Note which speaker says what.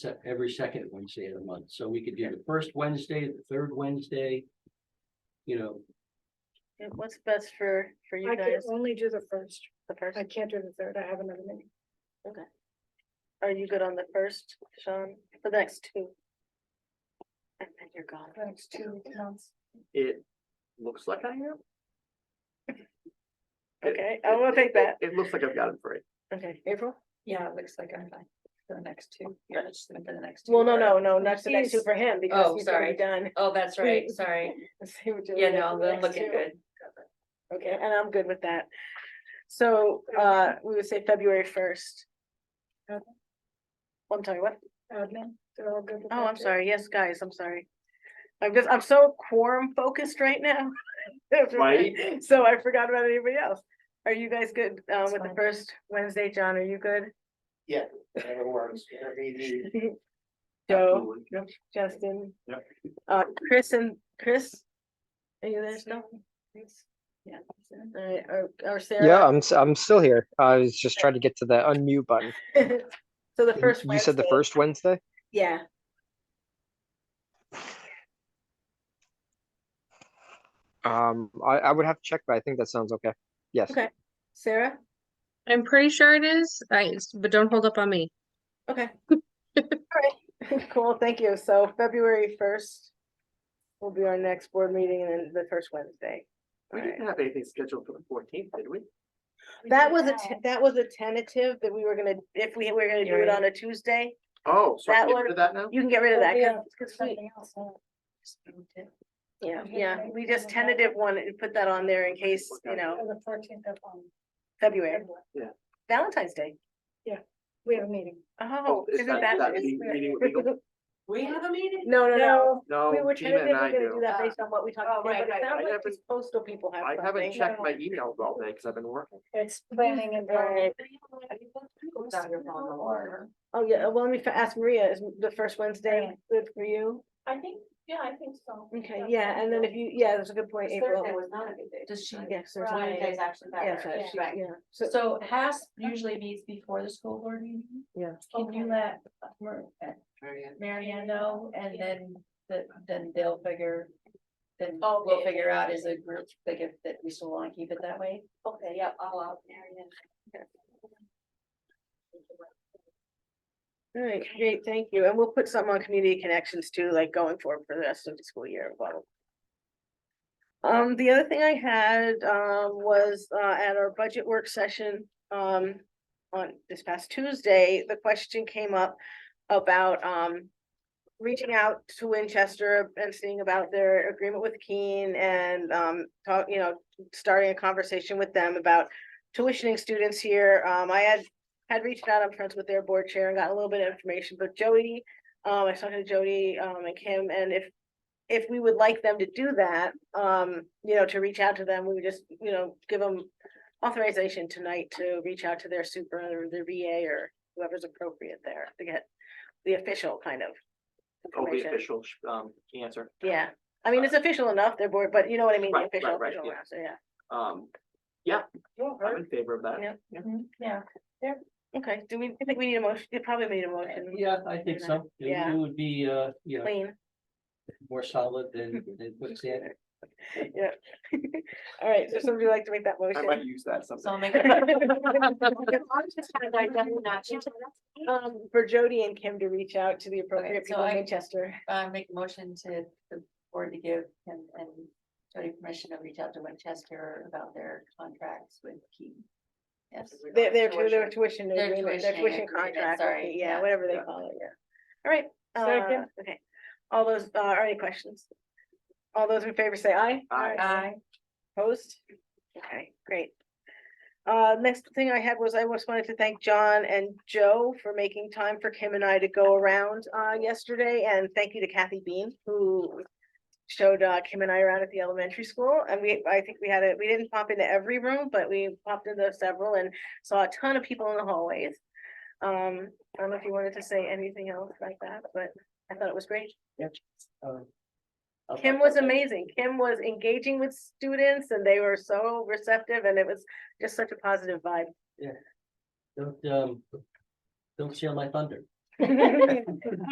Speaker 1: se- every second Wednesday of the month, so we could do the first Wednesday, the third Wednesday. You know,
Speaker 2: It- What's best for, for you
Speaker 3: I can
Speaker 2: guys,
Speaker 3: only do the first.
Speaker 2: the first,
Speaker 3: I can't do the third. I have another meeting.
Speaker 2: are you good on the first, Sean, the next two? And then you're gone,
Speaker 3: The next two months.
Speaker 4: It looks like I am. It-
Speaker 2: okay, I will take that,
Speaker 4: It looks like I've got it free.
Speaker 2: okay, April?
Speaker 5: Yeah, it looks like I'm fine for the next two. Yeah, it's for the next. two,
Speaker 2: Well, no,
Speaker 5: but-
Speaker 2: no, no, not the next two
Speaker 3: He's-
Speaker 2: for him,
Speaker 5: Oh,
Speaker 2: because he's already
Speaker 5: sorry.
Speaker 2: done.
Speaker 5: Oh, that's right, sorry.
Speaker 2: See what you're
Speaker 5: Yeah,
Speaker 2: looking
Speaker 5: no,
Speaker 2: for the
Speaker 5: they're
Speaker 2: next
Speaker 5: looking
Speaker 2: two.
Speaker 5: good.
Speaker 2: Okay, and I'm good with that. So, uh, we would say February first. Oh,
Speaker 3: Okay.
Speaker 2: I'm sorry, what?
Speaker 3: Admin, they're all good. with
Speaker 2: Oh,
Speaker 3: that
Speaker 2: I'm
Speaker 3: too?
Speaker 2: sorry. Yes, guys, I'm sorry. I'm just, I'm so quorum focused right now. That's
Speaker 4: Right.
Speaker 2: right. So I forgot about anybody else. Are you guys good uh,
Speaker 5: It's
Speaker 2: with the
Speaker 5: fine.
Speaker 2: first Wednesday? John, are you good?
Speaker 4: Whatever works, whatever you need.
Speaker 2: Joe,
Speaker 4: Absolutely.
Speaker 2: Justin?
Speaker 4: Yep.
Speaker 2: Uh, Chris and Chris? Are you there still?
Speaker 5: Yeah.
Speaker 2: All right, or, or
Speaker 6: Yeah,
Speaker 2: Sarah?
Speaker 6: I'm, s- I'm still here. I was just trying to get to the unmute button.
Speaker 2: Yeah. So the first.
Speaker 6: You said the
Speaker 2: Wednesday-
Speaker 6: first Wednesday?
Speaker 2: Yeah.
Speaker 6: Um, I, I would have to check, but I think that sounds okay. Yes.
Speaker 2: Okay. Sarah?
Speaker 7: I'm pretty sure it is, I, it's- but don't hold up on me.
Speaker 2: Okay. Alright, cool, thank you. So February first will be our next board meeting and then the first Wednesday.
Speaker 4: We didn't have anything scheduled for the fourteenth, did we?
Speaker 3: We
Speaker 2: That
Speaker 3: do
Speaker 2: was a,
Speaker 3: now.
Speaker 2: te- that was a tentative that we were gonna, if we were gonna do it
Speaker 5: Right.
Speaker 2: on a Tuesday,
Speaker 4: Oh, so
Speaker 2: That
Speaker 4: I can get
Speaker 2: one-
Speaker 4: rid of that now?
Speaker 2: you can get rid of
Speaker 3: But
Speaker 2: that.
Speaker 3: we
Speaker 2: 'cause-
Speaker 3: have
Speaker 2: 'cause we-
Speaker 3: something else, huh?
Speaker 2: Yeah,
Speaker 3: Okay,
Speaker 2: yeah,
Speaker 3: right,
Speaker 2: we
Speaker 3: so
Speaker 2: just
Speaker 3: that-
Speaker 2: tentative one and put that on there in case, you know,
Speaker 3: For The fourteenth of, um,
Speaker 2: February,
Speaker 3: February.
Speaker 2: Valentine's Day.
Speaker 3: we have a meeting.
Speaker 2: Oh,
Speaker 4: is
Speaker 2: isn't
Speaker 4: that-
Speaker 2: that?
Speaker 4: that meeting- meeting with legal?
Speaker 5: We have a meeting?
Speaker 2: No, no, no.
Speaker 4: No,
Speaker 2: We were
Speaker 4: Oh, Gina
Speaker 2: tentatively
Speaker 4: and I
Speaker 2: gonna do
Speaker 4: do.
Speaker 2: that based on what we
Speaker 5: Oh,
Speaker 2: talked about,
Speaker 5: right,
Speaker 2: but it
Speaker 5: right.
Speaker 2: sounds
Speaker 4: I
Speaker 2: like
Speaker 4: haven't-
Speaker 2: these postal people have
Speaker 4: I
Speaker 2: something.
Speaker 4: haven't checked my emails all day because I've been working.
Speaker 3: It's planning and.
Speaker 2: Right. Oh, yeah, well, let me fi- ask Maria, is the first Wednesday
Speaker 3: Yeah.
Speaker 2: good for you?
Speaker 5: I think, yeah, I think so.
Speaker 2: Okay, yeah, and then if you, yeah, that's a good point, April.
Speaker 5: not a good day. Does she?
Speaker 2: Yes, there's one
Speaker 5: Wednesday's
Speaker 2: day.
Speaker 5: actually
Speaker 2: Yes,
Speaker 5: better.
Speaker 2: I- she- yeah, so,
Speaker 5: So Has usually meets before the school board meeting.
Speaker 2: yeah,
Speaker 5: Can you let Mar- uh, Mary Ann know and then the, then they'll figure. Then
Speaker 2: Oh,
Speaker 5: we'll figure out as a group, like if that we still wanna keep it that way. Okay, yep, I'll out Mary
Speaker 2: all right, great, thank you, and we'll put something on community connections too, like going forward for the rest of the school year, blah, blah. Um, the other thing I had, um, was, uh, at our budget work session, um, on this past Tuesday, the question came up about, um, reaching out to Winchester and seeing about their agreement with Keene and, um, talk, you know, starting a conversation with them about tuitioning students here. Um, I had, had reached out, I'm friends with their board chair and got a little bit of information, but Jody, um, I was talking to Jody, um, and Kim, and if, if we would like them to do that, um, you know, to reach out to them, we would just, you know, give them authorization tonight to reach out to their super or their VA or whoever's appropriate there to get the official kind of.
Speaker 4: Oh, the
Speaker 2: information.
Speaker 4: official um answer.
Speaker 2: Yeah, I mean, it's official enough, they're board, but you know what I mean, the
Speaker 4: Right, right,
Speaker 2: official,
Speaker 4: right,
Speaker 2: official
Speaker 4: yeah.
Speaker 2: round, so yeah.
Speaker 4: Um, yeah, I'm
Speaker 2: Yeah.
Speaker 4: in favor of that.
Speaker 2: Yeah.
Speaker 5: Mm-hmm. Yeah.
Speaker 2: Okay, do we, I think we need a motion, you probably need a motion,
Speaker 1: yeah, I think so. It
Speaker 2: Yeah.
Speaker 1: would be, uh, you know,
Speaker 2: clean,
Speaker 1: more solid than, than quicksand.
Speaker 2: yeah. All right, so somebody like to make that
Speaker 4: I
Speaker 2: motion?
Speaker 4: might use that sometime.
Speaker 5: So I'll make.
Speaker 2: Um, for Jody and Kim to reach out to the appropriate
Speaker 5: Okay, so
Speaker 2: people in
Speaker 5: I-
Speaker 2: Manchester.
Speaker 5: Uh, make a motion to the board to give him and Jody permission to reach out to Winchester about their contracts with Key. Yes.
Speaker 2: Their, their, tu- their tuition
Speaker 5: Their
Speaker 2: agreement, their
Speaker 5: tuitioning
Speaker 2: tuition
Speaker 5: agreement,
Speaker 2: contract,
Speaker 5: sorry,
Speaker 2: okay, yeah,
Speaker 5: yeah,
Speaker 2: whatever they
Speaker 4: yeah.
Speaker 2: call it, yeah. All right, uh,
Speaker 3: Second.
Speaker 2: okay. All those, uh, are any questions? All those in favor say aye.
Speaker 4: Aye.
Speaker 5: Aye.
Speaker 2: Opposed? Okay, great. Uh, next thing I had was I just wanted to thank John and Joe for making time for Kim and I to go around, uh, yesterday, and thank you to Kathy Bean, who showed, uh, Kim and I around at the elementary school, and we, I think we had it, we didn't pop into every room, but we popped into several and saw a ton of people in the hallways. Um, I don't know if you wanted to say anything else like that, but I thought it was great.
Speaker 1: uh,
Speaker 2: Kim was amazing. Kim was engaging with students and they were so receptive and it was just such a positive vibe.
Speaker 1: Don't, um, don't steal my thunder.